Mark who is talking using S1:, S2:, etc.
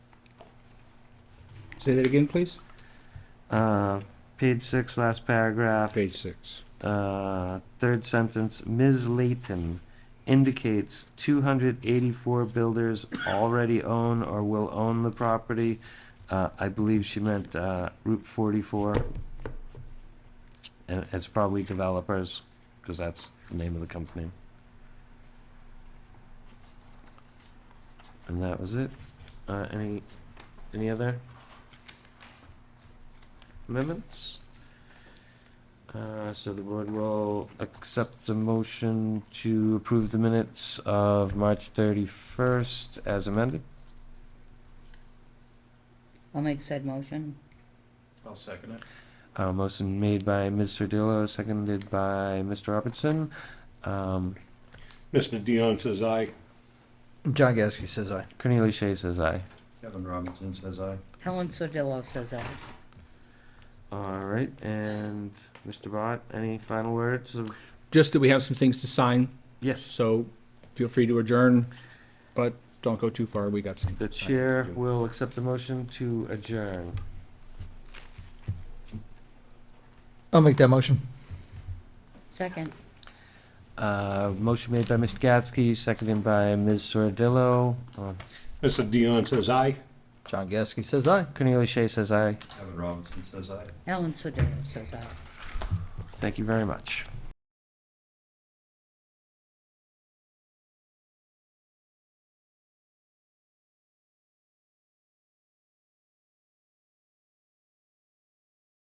S1: Say that again, please?
S2: Uh, page six, last paragraph,
S1: Page six.
S2: uh, third sentence, Ms. Layton indicates two hundred eighty-four builders already own or will own the property. Uh, I believe she meant, uh, Route forty-four. And it's probably developers, cause that's the name of the company. And that was it. Uh, any, any other amendments? Uh, so the board will accept the motion to approve the minutes of March thirty-first as amended.
S3: I'll make said motion.
S4: I'll second it.
S2: Uh, motion made by Ms. Sardillo, seconded by Mr. Robertson. Um,
S5: Mr. Dion says aye.
S4: John Gasky says aye.
S2: Cornelia Shea says aye.
S4: Kevin Robinson says aye.
S3: Helen Sodillo says aye.
S2: All right, and Mr. Bott, any final words of?
S1: Just that we have some things to sign,
S2: Yes.
S1: so feel free to adjourn, but don't go too far. We got some.
S2: The chair will accept the motion to adjourn.
S4: I'll make that motion.
S3: Second,
S2: Uh, motion made by Mr. Gatsky, seconded by Ms. Sardillo. Uh,
S5: Mr. Dion says aye.
S4: John Gasky says aye.
S2: Cornelia Shea says aye.
S3: Helen Sodillo says aye.
S2: Thank you very much.